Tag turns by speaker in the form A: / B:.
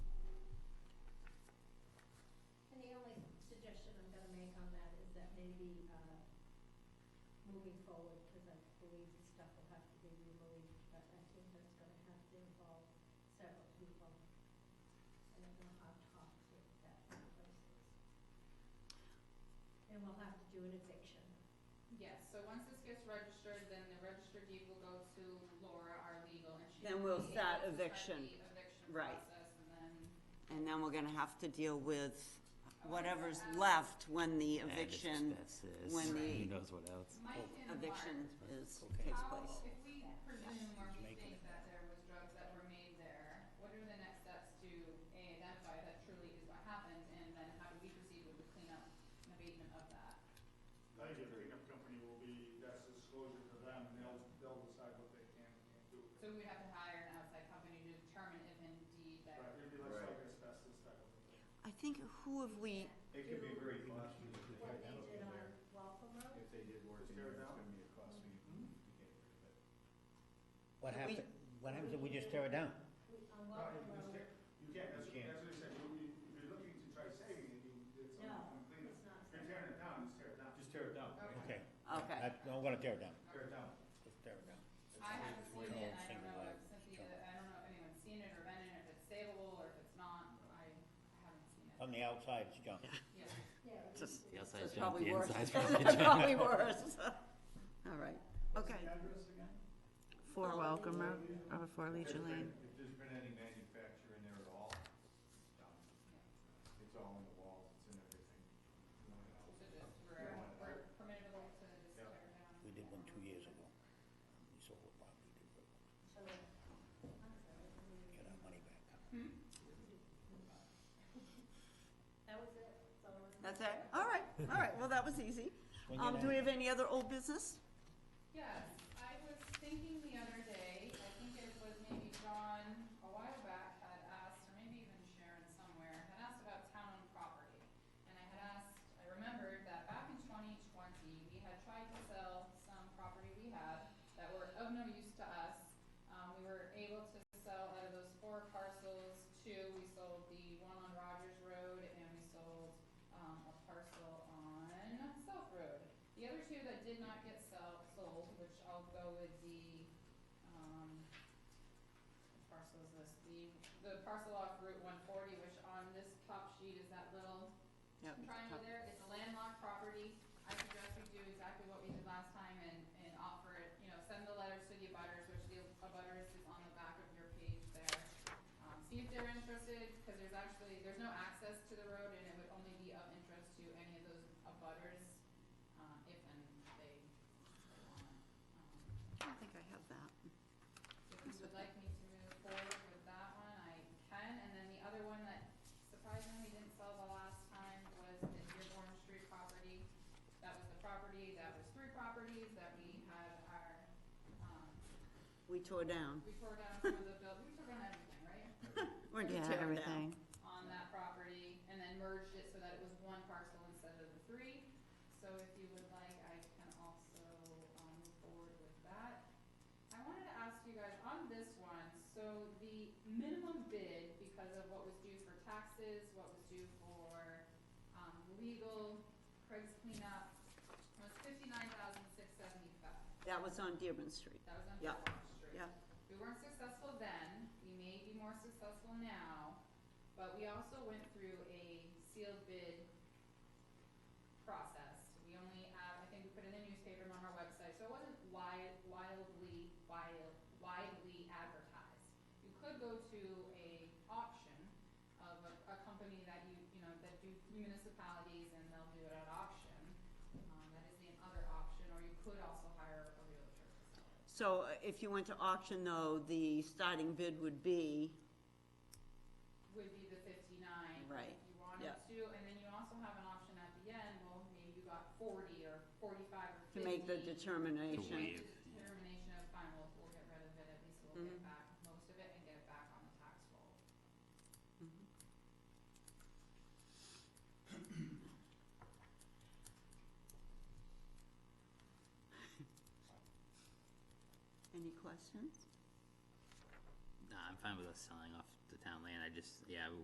A: maybe, uh, moving forward, because I believe stuff will have to be removed, but I think that's gonna have to involve several people. I don't know how toxic that place is. And we'll have to do an eviction.
B: Yes, so once this gets registered, then the registered deed will go to Laura, our legal, and she.
C: Then
B: will
C: we'll
B: be
C: start
B: able to
C: eviction.
B: the eviction
C: Right.
B: process, and then,
C: And then we're gonna have to deal with
B: Oh,
C: whatever's
B: yeah.
C: left when the
D: And it's-
C: eviction,
D: that's it.
C: when
D: Who
C: the
D: knows what else?
B: Mike and Mark.
C: eviction is,
E: Okay.
C: takes
B: How,
C: place.
B: if we presume or we
E: making
B: think that there was drugs that were made there, what are the next steps to A, identify that truly is what happened, and then how do we proceed with the cleanup and abatement of that?
F: I think the cleanup company will be, that's disclosure to them, and they'll, they'll decide what they can and can't do.
B: So we would have to hire an outside company to determine if indeed that.
F: Right, it'd be less like asbestos type of thing.
C: I think who have we,
G: It could be very costly if they
A: What
G: had
A: they
G: metal
A: did
G: in
A: on
G: there.
A: Waltham Road,
G: If they did work,
F: Just
G: in
F: tear
G: there, it's
F: it down?
G: gonna be a costly to get rid of it.
E: What happens, what happens if we just tear it down?
A: we, on
F: Oh, No,
A: Waltham
F: you just
A: Road,
F: can't- You can't, that's,
G: You can't.
F: that's what I said, you, you- if you're looking to try saving it, you, it's
A: no,
F: something cleanup.
A: it's not.
F: If you're tearing it down, just tear it down.
G: Just tear it down.
B: Okay.
E: Okay.
C: okay,
E: I- I'm gonna tear it down,
G: Tear it down.
E: just tear it down.
B: I haven't
E: We're
B: seen
E: all
B: it, I don't
E: single
B: know
E: wire.
B: if Cynthia, I don't know if anyone's seen it or been in it, if it's savable or if it's not, I I haven't seen it.
E: From the outside, it's junk.
B: Yeah,
A: Yeah, we-
D: Just the
C: so it's
D: outside jump,
C: probably
D: the
C: worse.
D: inside's probably
C: It's
D: junk.
C: probably worse. All right,
F: What's
C: okay.
F: the address again?
H: Four Welcome Road, over Four
G: If there's
H: Legion Lane.
G: been- If there's been any manufacture in there at all, it's done. It's all in the walls, it's in everything. No one else.
B: so just, we're, we're permitted to just tear it down.
E: We did one two years ago. We sold it, but we did,
A: So, I'm sorry, I mean,
E: get our money back.
A: that was it, that's all I was.
C: That's it, all right, all right, well, that was easy.
E: When
C: Um,
E: you
C: do we
E: know-
C: have any other old business?
B: Yes, I was thinking the other day, I think it was maybe John a while back had asked, or maybe even Sharon somewhere, had asked about town-owned property. And I had asked, I remembered that back in twenty twenty, we had tried to sell some property we had that were of no use to us. Um, we were able to sell out of those four parcels, two, we sold the one on Rogers Road and we sold, um, a parcel on South Road. The other two that did not get sell, sold, which I'll go with the, um, which parcel is this, the, the parcel off Route one forty, which on this top sheet is that little
C: Yep.
B: triangle there, it's a landlocked property. I suggest we do exactly what we did last time and, and offer it, you know, send the letters to the abutters, which the abutters is on the back of your page there. Um, see if they're interested, cause there's actually, there's no access to the road and it would only be of interest to any of those abutters, uh, if and they want. Um,
C: I don't think I have that.
B: if you would like me to move forward with that one, I can, and then the other one that surprisingly didn't sell the last time was the Dearborn Street property. That was the property, that was three properties that we had our, um,
C: We tore down,
B: we tore down some of the buil- we tore down everything, right?
C: we're gonna
H: Yeah,
C: tear it down.
H: everything.
B: on that property and then merged it so that it was one parcel instead of the three. So if you would like, I can also, um, move forward with that. I wanted to ask you guys on this one, so the minimum bid, because of what was due for taxes, what was due for, um, legal, Craig's cleanup, was fifty-nine thousand six seventy-five.
C: That was on Dearborn Street,
B: That was on
C: Yeah,
B: Fourth Street.
C: yeah.
B: We weren't successful then, we may be more successful now, but we also went through a sealed bid process. We only, uh, I think we put in the newspaper and on our website, so it wasn't wi- wildly, wild, widely advertised. You could go to a auction of a, a company that you, you know, that do municipalities and they'll do it at auction. Um, that is the other option, or you could also hire a realtor to sell it.
C: so uh, if you went to auction though, the starting bid would be,
B: would be the fifty-nine.
C: Right,
B: If you wanted
C: yeah.
B: to, and then you also have an option at the end, well, maybe you got forty or forty-five or
C: to
B: fifty.
C: make the determination.
D: waive.
B: Determination of fine, we'll, we'll get rid of it, at least we'll
C: Mm-hmm.
B: get back most of it and get it back on the tax roll.
C: Any questions?
D: Nah, I'm fine with us selling off the town land, I just, yeah,